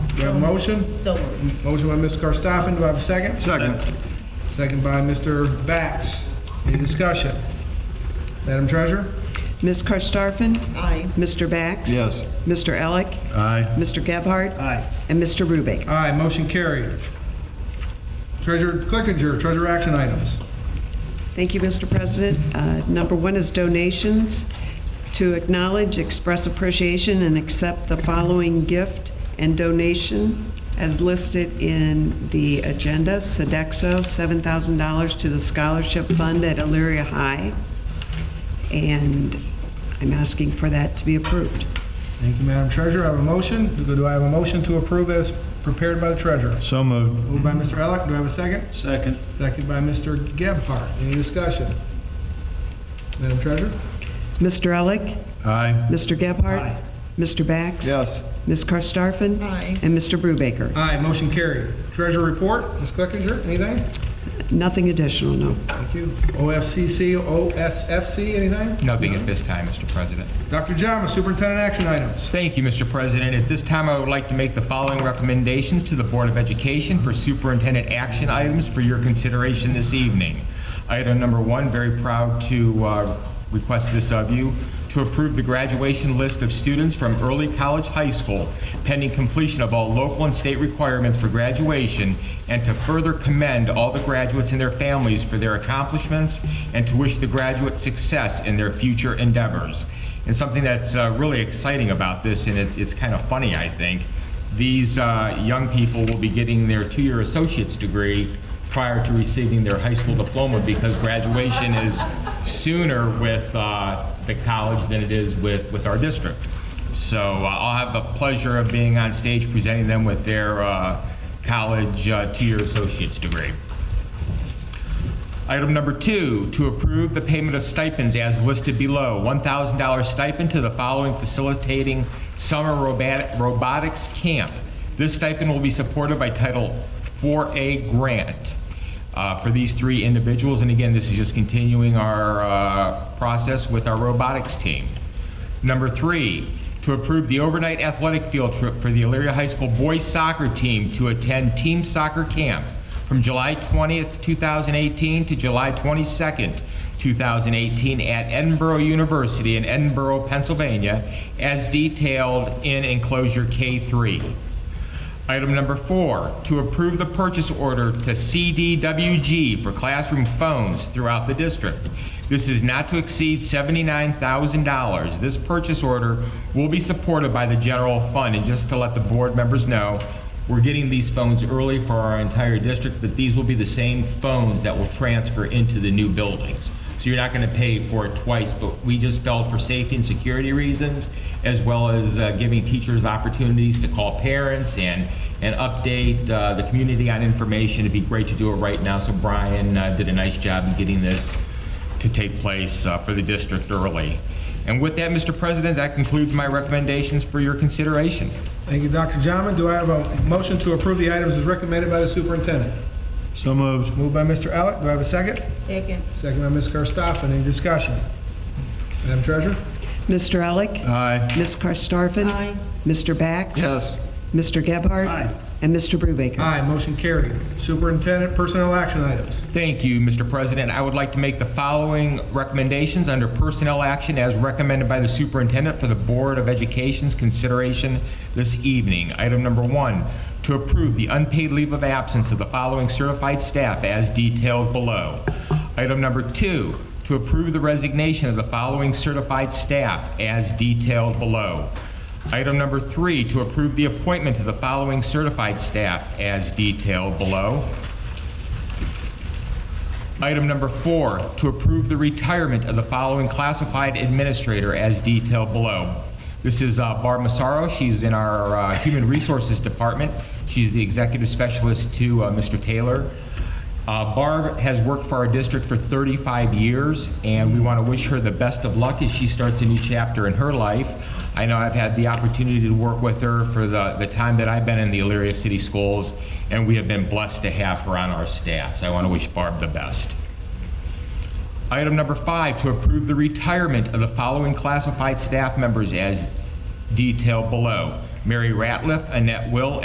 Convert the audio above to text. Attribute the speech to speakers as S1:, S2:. S1: Do I have a motion?
S2: So moved.
S1: Motion by Ms. Karstoffen, do I have a second?
S3: Second.
S1: Second by Mr. Bax. Any discussion? Madam Treasurer?
S4: Ms. Karstafen?
S2: Aye.
S4: Mr. Bax?
S3: Yes.
S4: Mr. Alec?
S3: Aye.
S4: Mr. Gebhardt?
S1: Aye.
S4: And Mr. Rubik?
S1: Aye, motion carried. Treasurer Clickinger, treasurer action items.
S4: Thank you, Mr. President. Uh, Number one is donations. To acknowledge, express appreciation, and accept the following gift and donation as listed in the agenda. Sedexo, $7,000 to the Scholarship Fund at Elyria High. And I'm asking for that to be approved.
S1: Thank you, Madam Treasurer. I have a motion. Do I have a motion to approve as prepared by the treasurer?
S3: So moved.
S1: Moved by Mr. Elick. Do I have a second?
S3: Second.
S1: Second by Mr. Gebhardt. Any discussion? Madam Treasurer?
S4: Mr. Elick?
S3: Aye.
S4: Mr. Gebhardt? Mr. Bax?
S3: Yes.
S4: Ms. Karstafen?
S2: Aye.
S4: And Mr. Brubaker?
S1: Aye, motion carried. Treasurer report, Ms. Clickinger, anything?
S4: Nothing additional, no.
S1: Thank you. OFCC, OSFC, anything?
S5: Nothing at this time, Mr. President.
S1: Dr. Jama, superintendent action items.
S5: Thank you, Mr. President. At this time, I would like to make the following recommendations to the Board of Education for superintendent action items for your consideration this evening. Item number one, very proud to uh, request this of you, to approve the graduation list of students from early college high school pending completion of all local and state requirements for graduation, and to further commend all the graduates and their families for their accomplishments, and to wish the graduates success in their future endeavors. And something that's uh, really exciting about this, and it's, it's kind of funny, I think, these uh, young people will be getting their two-year associate's degree prior to receiving their high school diploma because graduation is sooner with uh, the college than it is with, with our district. So uh, I'll have the pleasure of being on stage presenting them with their uh, college uh, two-year associate's degree. Item number two, to approve the payment of stipends as listed below. $1,000 stipend to the following facilitating summer robat- robotics camp. This stipend will be supported by Title 4A grant uh, for these three individuals. And again, this is just continuing our uh, process with our robotics team. Number three, to approve the overnight athletic field trip for the Elyria High School boys soccer team to attend team soccer camp from July 20th, 2018 to July 22nd, 2018 at Edinburgh University in Edinburgh, Pennsylvania, as detailed in enclosure K3. Item number four, to approve the purchase order to CDWG for classroom phones throughout the district. This is not to exceed $79,000. This purchase order will be supported by the general fund. And just to let the board members know, we're getting these phones early for our entire district, but these will be the same phones that will transfer into the new buildings. So you're not going to pay for it twice, but we just felt for safety and security reasons, as well as uh, giving teachers opportunities to call parents and, and update uh, the community on information. It'd be great to do it right now, so Brian uh, did a nice job in getting this to take place uh, for the district early. And with that, Mr. President, that concludes my recommendations for your consideration.
S1: Thank you, Dr. Jama. Do I have a motion to approve the items as recommended by the superintendent?
S3: So moved.
S1: Moved by Mr. Elick. Do I have a second?
S2: Second.
S1: Second by Ms. Karstoffen. Any discussion? Madam Treasurer?
S4: Mr. Elick?
S3: Aye.
S4: Ms. Karstafen?
S2: Aye.
S4: Mr. Bax?
S3: Yes.
S4: Mr. Gebhardt?
S1: Aye.
S4: And Mr. Brubaker?
S1: Aye, motion carried. Superintendent personnel action items.
S5: Thank you, Mr. President. I would like to make the following recommendations under personnel action as recommended by the superintendent for the Board of Education's consideration this evening. Item number one, to approve the unpaid leave of absence of the following certified staff as detailed below. Item number two, to approve the resignation of the following certified staff as detailed below. Item number three, to approve the appointment of the following certified staff as detailed below. Item number four, to approve the retirement of the following classified administrator as detailed below. This is uh, Barb Massaro. She's in our uh, Human Resources Department. She's the executive specialist to uh, Mr. Taylor. Uh, Barb has worked for our district for 35 years, and we want to wish her the best of luck as she starts a new chapter in her life. I know I've had the opportunity to work with her for the, the time that I've been in the Elyria City Schools, and we have been blessed to have her on our staff. So I want to wish Barb the best. Item number five, to approve the retirement of the following classified staff members as detailed below. Mary Ratliff, Annette Will,